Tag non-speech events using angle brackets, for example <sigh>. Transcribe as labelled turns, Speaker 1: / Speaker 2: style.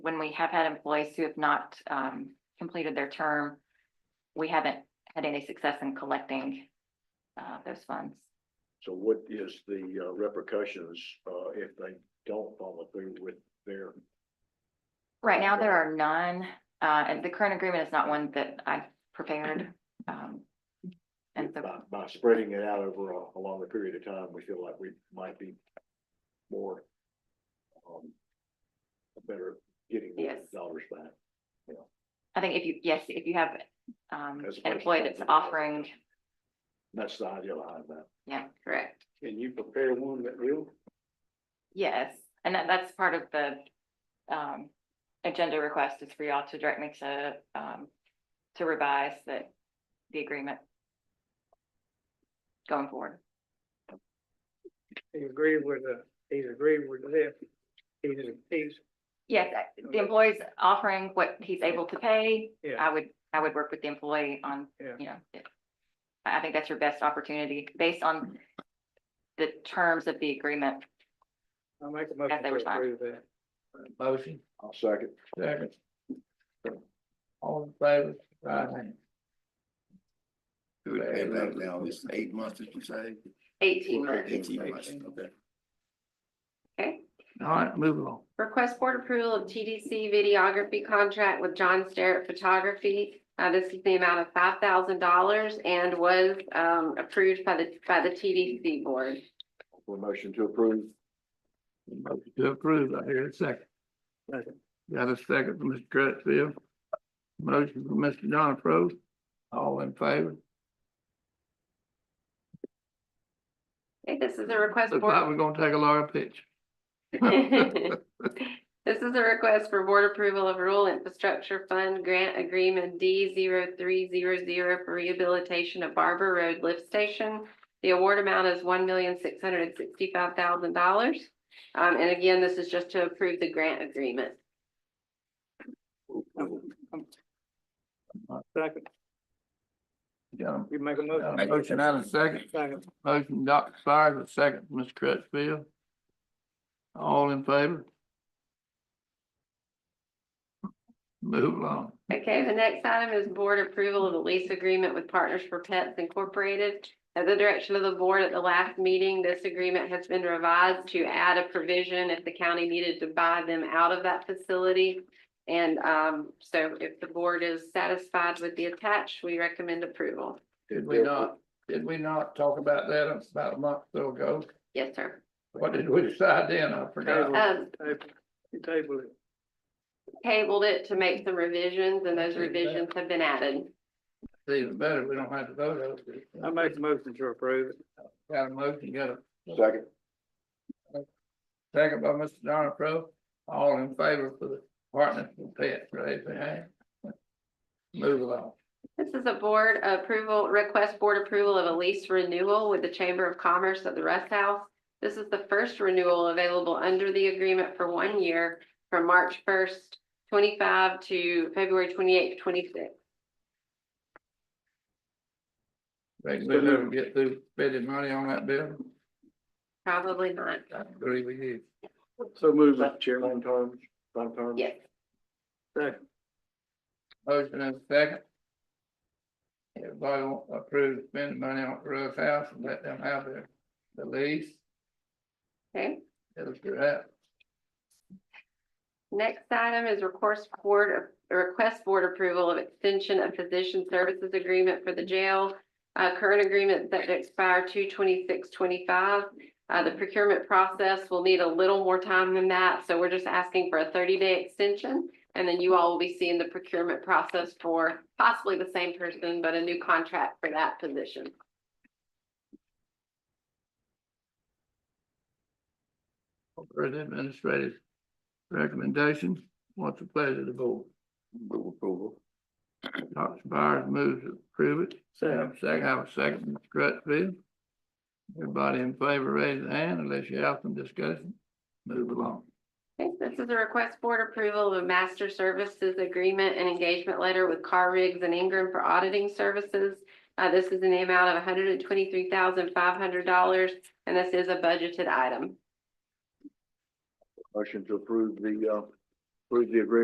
Speaker 1: when we have had employees who have not um completed their term, we haven't had any success in collecting uh those funds.
Speaker 2: So what is the uh, repercussions, uh, if they don't follow through with their,
Speaker 1: Right now, there are none, uh, and the current agreement is not one that I prepared. um, And
Speaker 2: by,
Speaker 1: so,
Speaker 2: by spreading it out over a, a longer period of time, we feel like we might be more, um, better getting more
Speaker 1: Yes.
Speaker 2: dollars back.
Speaker 1: I think if you, yes, if you have um
Speaker 2: As opposed
Speaker 1: an
Speaker 2: to
Speaker 1: employee that's
Speaker 2: something else.
Speaker 1: offering,
Speaker 2: That's the idea behind that.
Speaker 1: yeah, correct.
Speaker 2: Can you prepare one that will?
Speaker 1: Yes, and that, that's part of the, um, agenda request is for y'all to direct me to, um, to revise the, the agreement going forward.
Speaker 3: He agreed with the, uh, he's agreed with this. He's, he's,
Speaker 1: Yes, I- the employee's offering what he's able to pay.
Speaker 3: yeah,
Speaker 1: I would, I would work with the employee on,
Speaker 3: Yeah.
Speaker 1: you know, it- I, I think that's your best opportunity based on the terms of the agreement.
Speaker 3: I make a
Speaker 1: As
Speaker 3: motion
Speaker 1: they
Speaker 3: to
Speaker 1: respond.
Speaker 3: approve that.
Speaker 4: Motion,
Speaker 2: I'll second.
Speaker 4: second. All in favor, right hand.
Speaker 5: Do it pay back now, it's eight months, did you say?
Speaker 1: Eighteen months.
Speaker 5: Eighteen months, okay.
Speaker 6: Okay,
Speaker 4: All right, move along.
Speaker 6: request board approval of TDC videography contract with John Starrett Photography. Uh, this is the amount of five thousand dollars and was, um, approved by the, by the TDC board.
Speaker 2: For motion to approve.
Speaker 4: Motion to approve, I hear a second.
Speaker 3: Second.
Speaker 4: Got a second from Mr. Crutchfield. Motion from Mr. John Prose, all in favor.
Speaker 6: Okay, this is a request.
Speaker 4: Looks
Speaker 6: board-
Speaker 4: like we're gonna take a Laura pitch.
Speaker 6: <laughs> This is a request for board approval of rural infrastructure fund grant agreement D 300 for rehabilitation of Barber Road Lift Station. The award amount is one million six hundred and sixty-five thousand dollars. Um, and again, this is just to approve the grant agreement.
Speaker 3: Second,
Speaker 4: Got
Speaker 3: you make a
Speaker 4: a- got a
Speaker 3: motion.
Speaker 4: motion and a second,
Speaker 3: Second,
Speaker 4: motion Dr. Sires, a second from Mr. Crutchfield. All in favor. Move along.
Speaker 6: Okay, the next item is board approval of the lease agreement with Partners for Pets Incorporated. At the direction of the board at the last meeting, this agreement has been revised to add a provision if the county needed to buy them out of that facility. And um, so if the board is satisfied with the attached, we recommend approval.
Speaker 4: Did we not, did we not talk about that about a month or so ago?
Speaker 6: Yes, sir.
Speaker 4: What did we decide then? I forgot.
Speaker 6: Um,
Speaker 3: table, you table it.
Speaker 6: tabled it to make some revisions and those revisions have been added.
Speaker 4: It's Even better, we don't have to vote on it.
Speaker 3: I make a motion to approve it.
Speaker 4: Got a motion, got a
Speaker 2: Second.
Speaker 4: second by Mr. Donna Pro, all in favor for the partnership with pets, raise your hand. Move along.
Speaker 6: This is a board approval, request board approval of a lease renewal with the Chamber of Commerce at the Rest House. This is the first renewal available under the agreement for one year from March first, twenty-five to February twenty-eighth, twenty-six.
Speaker 4: Reckon we'll never get through spending money on that bill.
Speaker 6: Probably not.
Speaker 4: I agree with you.
Speaker 3: So move, Mr. Chairman.
Speaker 2: Long term, long term.
Speaker 6: Yes.
Speaker 3: Second,
Speaker 4: Motion and second. Everybody want to approve spending money on the roof house and let them have their, the lease,
Speaker 6: Okay.
Speaker 4: it'll do that.
Speaker 6: Next item is request board, request board approval of extension of physician services agreement for the jail. Uh, current agreement that expire two twenty-six twenty-five. Uh, the procurement process will need a little more time than that, so we're just asking for a thirty-day extension. And then you all will be seeing the procurement process for possibly the same person, but a new contract for that position.
Speaker 4: For the administrative recommendation, what's the pleasure of the board?
Speaker 5: Move approval.
Speaker 4: Dr. Byers moves to approve it. Have
Speaker 3: second,
Speaker 4: a second, have a second, Mr. Crutchfield. Everybody in favor, raise a hand unless you have some discussion. Move along.
Speaker 6: Okay, this is a request board approval of a master services agreement and engagement letter with Car Rigs and Ingram for auditing services. Uh, this is in the amount of hundred and twenty-three thousand five hundred dollars, and this is a budgeted item.
Speaker 2: Motion to approve the, uh,
Speaker 3: Where's the agreement